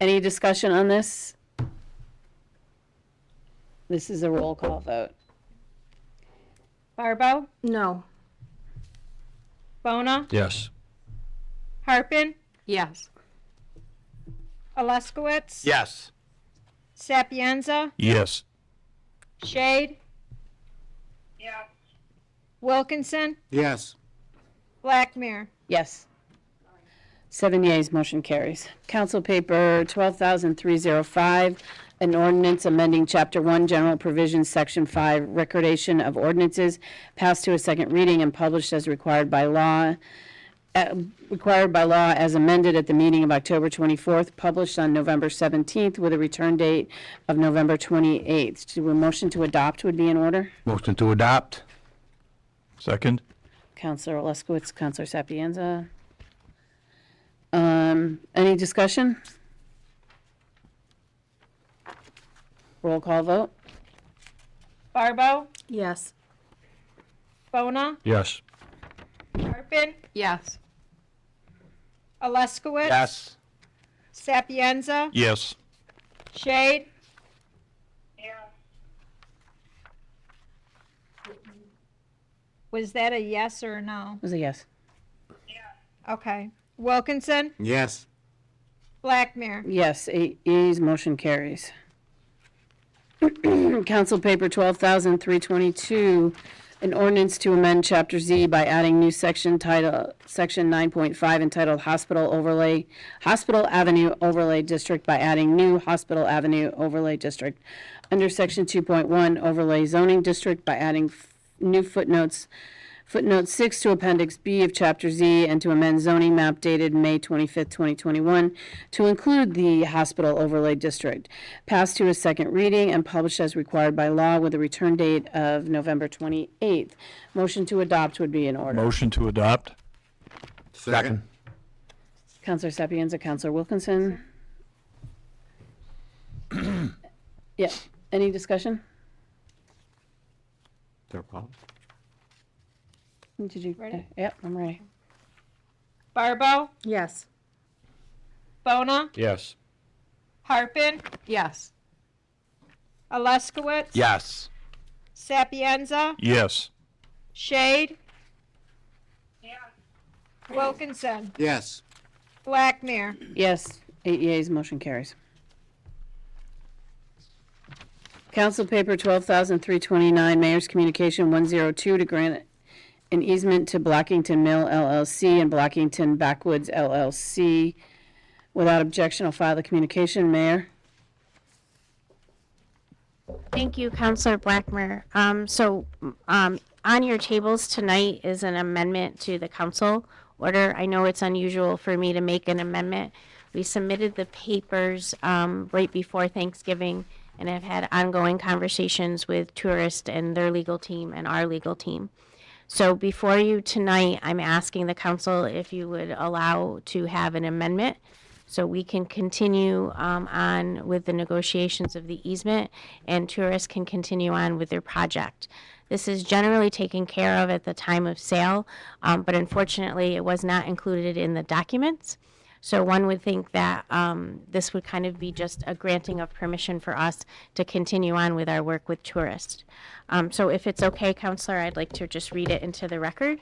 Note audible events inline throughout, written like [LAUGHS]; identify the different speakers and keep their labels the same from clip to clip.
Speaker 1: Any discussion on this? This is a roll call vote.
Speaker 2: Barbo,
Speaker 3: No.
Speaker 2: Bona,
Speaker 4: Yes.
Speaker 2: Harpin,
Speaker 3: Yes.
Speaker 2: Alaskowitz,
Speaker 5: Yes.
Speaker 2: Sapienza,
Speaker 4: Yes.
Speaker 2: Shade. Yes. Wilkinson,
Speaker 5: Yes.
Speaker 2: Blackmere.
Speaker 1: Yes. Seven yeas, motion carries. Council Paper 12,305, an ordinance amending Chapter 1, General Provisions, Section 5, Recordation of Ordinances, passed to a second reading and published as required by law, uh, required by law as amended at the meeting of October 24th, published on November 17th with a return date of November 28th. Do a motion to adopt would be in order?
Speaker 5: Motion to adopt?
Speaker 4: Second?
Speaker 1: Counselor Alaskowitz, Counselor Sapienza. Um, any discussion? Roll call vote?
Speaker 2: Barbo,
Speaker 3: Yes.
Speaker 2: Bona,
Speaker 4: Yes.
Speaker 2: Harpin,
Speaker 3: Yes.
Speaker 2: Alaskowitz.
Speaker 5: Yes.
Speaker 2: Sapienza,
Speaker 4: Yes.
Speaker 2: Shade. Was that a yes or a no?
Speaker 1: It was a yes.
Speaker 2: Okay. Wilkinson,
Speaker 5: Yes.
Speaker 2: Blackmere.
Speaker 1: Yes, eight yeas, motion carries. [CLEARS THROAT] Council Paper 12,322, an ordinance to amend Chapter Z by adding new section title, Section 9.5 entitled Hospital Overlay, Hospital Avenue Overlay District by adding new Hospital Avenue Overlay District. Under Section 2.1 Overlay Zoning District by adding f- new footnotes, footnote 6 to Appendix B of Chapter Z and to amend zoning map dated May 25th, 2021 to include the hospital overlay district, passed to a second reading and published as required by law with a return date of November 28th. Motion to adopt would be in order.
Speaker 4: Motion to adopt?
Speaker 5: Second.
Speaker 1: Counselor Sapienza, Counselor Wilkinson. Yeah, any discussion? Did you? uh,
Speaker 2: Ready?
Speaker 1: Yep, I'm ready.
Speaker 2: Barbo,
Speaker 3: Yes.
Speaker 2: Bona,
Speaker 4: Yes.
Speaker 2: Harpin,
Speaker 3: Yes.
Speaker 2: Alaskowitz.
Speaker 5: Yes.
Speaker 2: Sapienza,
Speaker 4: Yes.
Speaker 2: Shade. Wilkinson,
Speaker 5: Yes.
Speaker 2: Blackmere.
Speaker 1: Yes, eight yeas, motion carries. Council Paper 12,329, Mayor's Communication 102 to grant an easement to Blackington Mill LLC and Blackington Backwoods LLC. Without objection, I'll file the communication, Mayor.
Speaker 6: Thank you, Counselor Blackmer. Um, so, um, on your tables tonight is an amendment to the council order. I know it's unusual for me to make an amendment. We submitted the papers, um, right before Thanksgiving and have had ongoing conversations with tourist and their legal team and our legal team. So before you tonight, I'm asking the council if you would allow to have an amendment so we can continue um, on with the negotiations of the easement and tourists can continue on with their project. This is generally taken care of at the time of sale, um, but unfortunately, it was not included in the documents. So one would think that um, this would kind of be just a granting of permission for us to continue on with our work with tourists. Um, so if it's okay, Counselor, I'd like to just read it into the record,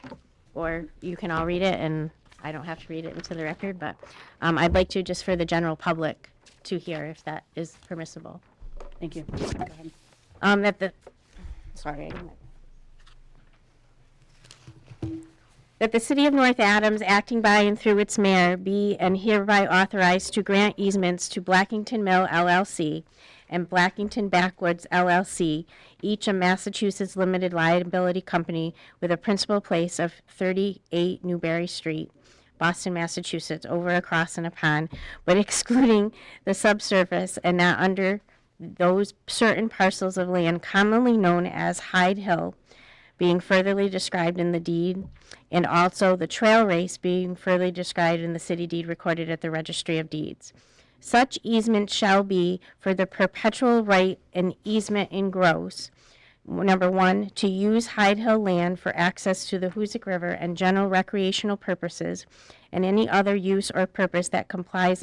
Speaker 6: or you can all read it, and I don't have to read it into the record, but um, I'd like to just for the general public to hear if that is permissible.
Speaker 1: Thank you.
Speaker 6: Um, that the, sorry. I didn't- That the City of North Adams, acting by and through its mayor, be and hereby authorized to grant easements to Blackington Mill LLC and Blackington Backwoods LLC, each a Massachusetts limited liability company with a principal place of 38 Newberry Street, Boston, Massachusetts, over, across, and upon, but [LAUGHS] excluding the subsurface and not under those certain parcels of land commonly known as Hyde Hill being furtherly described in the deed, and also the trail race being furtherly described in the city deed recorded at the registry of deeds. Such easement shall be for the perpetual right and easement in gross. Number one, to use Hyde Hill land for access to the Hoosic River and general recreational purposes, and any other use or purpose that complies